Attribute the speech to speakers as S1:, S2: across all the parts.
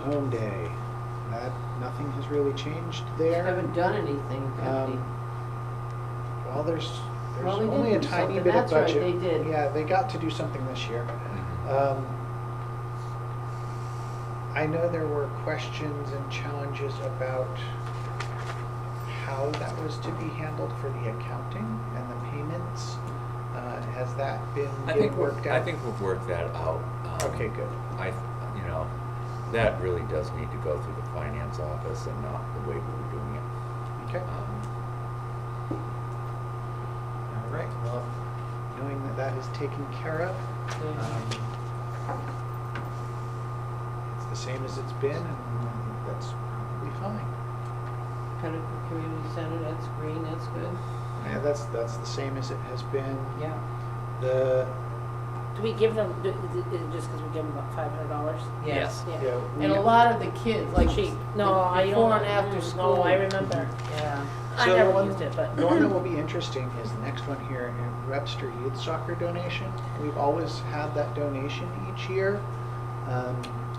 S1: home day. That, nothing has really changed there.
S2: Haven't done anything, have
S1: Um,
S2: they?
S1: Well, there's, there's
S2: Well, they did
S1: only a
S2: do
S1: tiny
S2: something.
S1: bit of budget.
S2: That's right, they did.
S1: Yeah, they got to do something this year.
S3: Mm-hmm.
S1: Um, I know there were questions and challenges about how that was to be handled for the accounting and the payments. Uh, Has that been
S3: I
S1: getting
S3: think, we're-
S1: worked out?
S3: I think we've worked that out. Um,
S1: Okay, good.
S3: I, you know, that really does need to go through the finance office and not the way we were doing it.
S1: Okay,
S3: Um,
S1: all right, well, knowing that that is taken care of,
S2: Yeah.
S1: um, it's the same as it's been, and I think that's probably fine.
S2: Pinnacle Community Center, that's green, that's good.
S1: Yeah, that's, that's the same as it has been.
S2: Yeah.
S1: The,
S4: Do we give them, do- do- do- just because we give them about five hundred dollars?
S2: Yes.
S1: Yeah, we-
S2: And a lot of the kids, like.
S4: Cheap.
S2: the-
S4: No, I don't.
S2: Before and after
S4: mm,
S2: school.
S4: No, I remember.
S2: Yeah.
S4: I
S1: So the
S4: never
S1: one-
S4: used it, but.
S1: the one that will be interesting is the next one here, in Webster Youth Soccer donation. We've always had that donation each year. Um,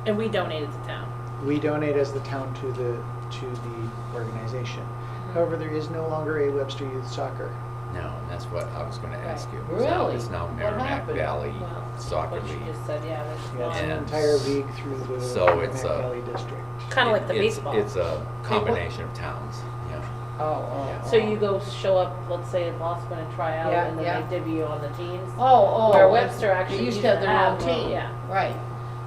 S4: And we donated to town.
S1: We donate as the town to the, to the organization.
S4: Mm-hmm.
S1: However, there is no longer a Webster Youth Soccer.
S3: No, and that's what I was gonna ask you.
S2: Right.
S3: It's now-
S2: Really?
S3: It's now
S2: What
S3: Merrimack
S2: happened?
S3: Valley
S4: Well,
S3: Soccer
S4: What she
S3: League.
S4: just said, yeah, there's
S1: Yeah, it's an
S3: And
S4: one.
S1: entire league through the
S3: so
S1: Merrimack
S3: it's uh, a-
S1: Valley District.
S4: Kind of like the
S3: It- it's-
S4: baseball.
S3: It's a combination of towns, yeah.
S2: Oh, oh.
S4: So you go show up, let's say in Lossman and try out,
S2: Yeah,
S4: and
S2: yeah.
S4: then they debut you on the teams.
S2: Oh, oh.
S4: Where Webster actually
S2: They used
S4: used
S2: to have
S4: to
S2: their own
S4: have their own,
S2: team.
S4: yeah.
S2: Right.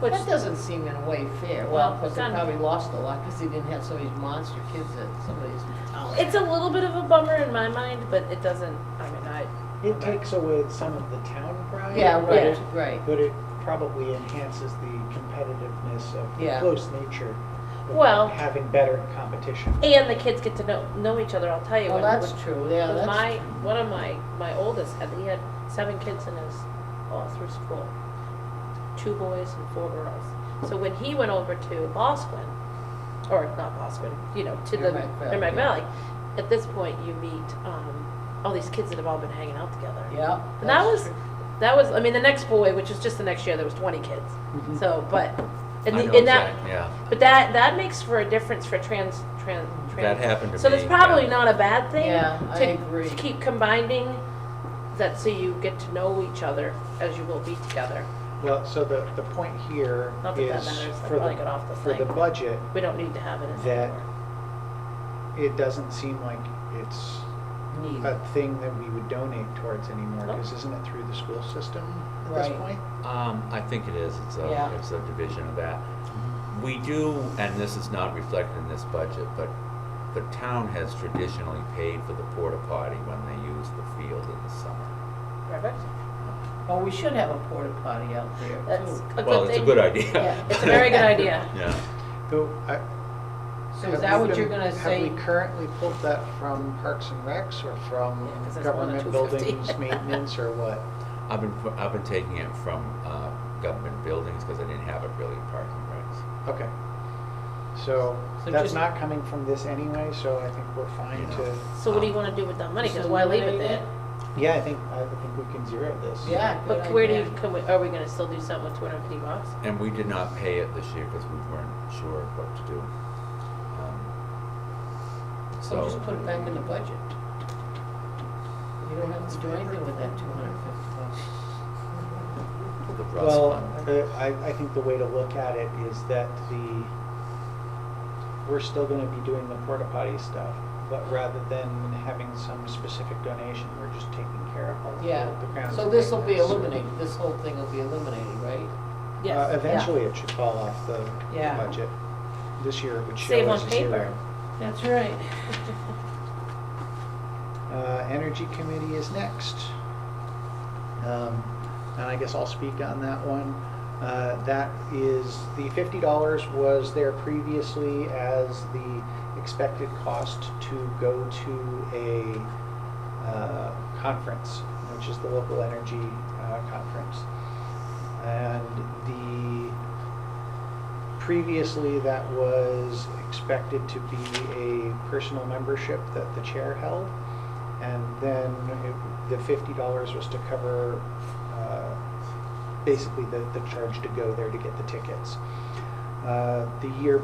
S4: Which-
S2: That doesn't seem in a way fair.
S4: Well,
S2: Well, because they
S4: kind of.
S2: probably lost a lot because they didn't have some of these monster kids that somebody's.
S4: Oh, It's a little bit of a bummer in my mind, but it doesn't, I mean, I,
S1: It takes away some of the town pride.
S2: Oh, Yeah,
S1: but
S2: right,
S1: it-
S2: right.
S1: But it probably enhances the competitiveness of the
S2: Yeah.
S1: close nature
S4: Well-
S1: of having better competition.
S4: and the kids get to know, know each other, I'll tell you.
S2: Well,
S4: when-
S2: that's
S4: when-
S2: true, yeah,
S4: when
S2: that's.
S4: my, one of my, my oldest had, he had seven kids in his, all through school. Two boys and four girls. So when he went over to Bosquen, or not Bosquen, you know, to the,
S2: Merrimack Valley,
S4: Merrimack
S2: yeah.
S4: Valley, at this point, you meet, um, all these kids that have all been hanging out together.
S2: Yeah.
S4: And that
S2: that's
S4: was,
S2: true.
S4: that was, I mean, the next boy, which is just the next year, there was twenty kids.
S2: Mm-hmm.
S1: Mhm.
S4: So, but, and,
S3: I
S4: the-
S3: know
S4: and that,
S3: exact- Yeah.
S4: but that, that makes for a difference for trans, trans,
S3: That
S4: trans.
S3: happened to me.
S4: So that's probably
S3: yeah.
S4: not a bad thing.
S2: Yeah, I
S4: to-
S2: agree.
S4: To keep combining that so you get to know each other as you will be together.
S1: Well, so the, the point here
S4: Not that that
S1: is
S4: matters, I
S1: for
S4: probably got off
S1: the,
S4: the
S1: for the
S4: thing.
S1: budget,
S4: We don't need to have it as.
S1: that it doesn't seem like it's
S2: Neat.
S1: a thing that we would donate towards anymore,
S4: Nope.
S1: because isn't it through the school system at this
S2: Oh. Right.
S1: point?
S3: Um, I think it is, it's
S2: Yeah.
S3: a, it's a division of that. We do, and this is not reflected in this budget, but the town has traditionally paid for the porta potty when they use the field in the summer.
S4: Perfect.
S2: Well, we should have a porta potty out there too.
S4: That's a good thing.
S3: Well, it's a good idea.
S2: Yeah,
S4: It's a very good idea.
S3: Yeah.
S1: Though, I.
S2: So
S1: have
S2: is that
S1: we
S2: what you're
S1: been-
S2: gonna say?
S1: Have we currently pulled that from Parks and Recs or from
S4: Yeah, 'cause that's more than
S1: government
S4: 250.
S1: buildings maintenance or what?
S3: I've been, pu- I've been taking it from, uh, government buildings, cause I didn't have it really in parking regs.
S1: Okay. So
S2: So
S1: that's
S2: just-
S1: not coming from this anyway, so I think we're fine
S3: Yeah.
S1: to,
S4: So what do you wanna do with that money? Cause
S2: So
S4: why leave it
S2: eliminate
S4: there?
S1: yeah, I think, I think we can zero this.
S2: Yeah, good
S4: But where do you,
S2: idea.
S4: can we, are we gonna still do something with two hundred and fifty bucks?
S3: And we did not pay it this year, cause we weren't sure what to do. Um,
S2: So
S3: So.
S2: just put it back in the budget. You don't have to do anything with that two hundred and fifty bucks.
S3: The Russ
S1: Well,
S3: Fund.
S1: uh, I, I think the way to look at it is that the, we're still gonna be doing the porta potty stuff, but rather than having some specific donation, we're just taking care of all the the
S2: Yeah,
S1: grounds
S2: so this will be
S1: maintenance.
S2: eliminated, this whole thing will be eliminated, right?
S1: Uh,
S4: Yes.
S1: Eventually, it should fall off the the
S2: Yeah.
S1: budget. This year, it would
S4: Save
S1: show as
S4: on
S1: a
S4: paper.
S1: zero.
S2: That's right.
S1: Uh, Energy Committee is next. Um, And I guess I'll speak on that one. Uh, That is, the fifty dollars was there previously as the expected cost to go to a uh, conference, which is the local energy uh, conference. And the, previously, that was expected to be a personal membership that the chair held. And then it- the fifty dollars was to cover, uh, basically the, the charge to go there to get the tickets. Uh, The year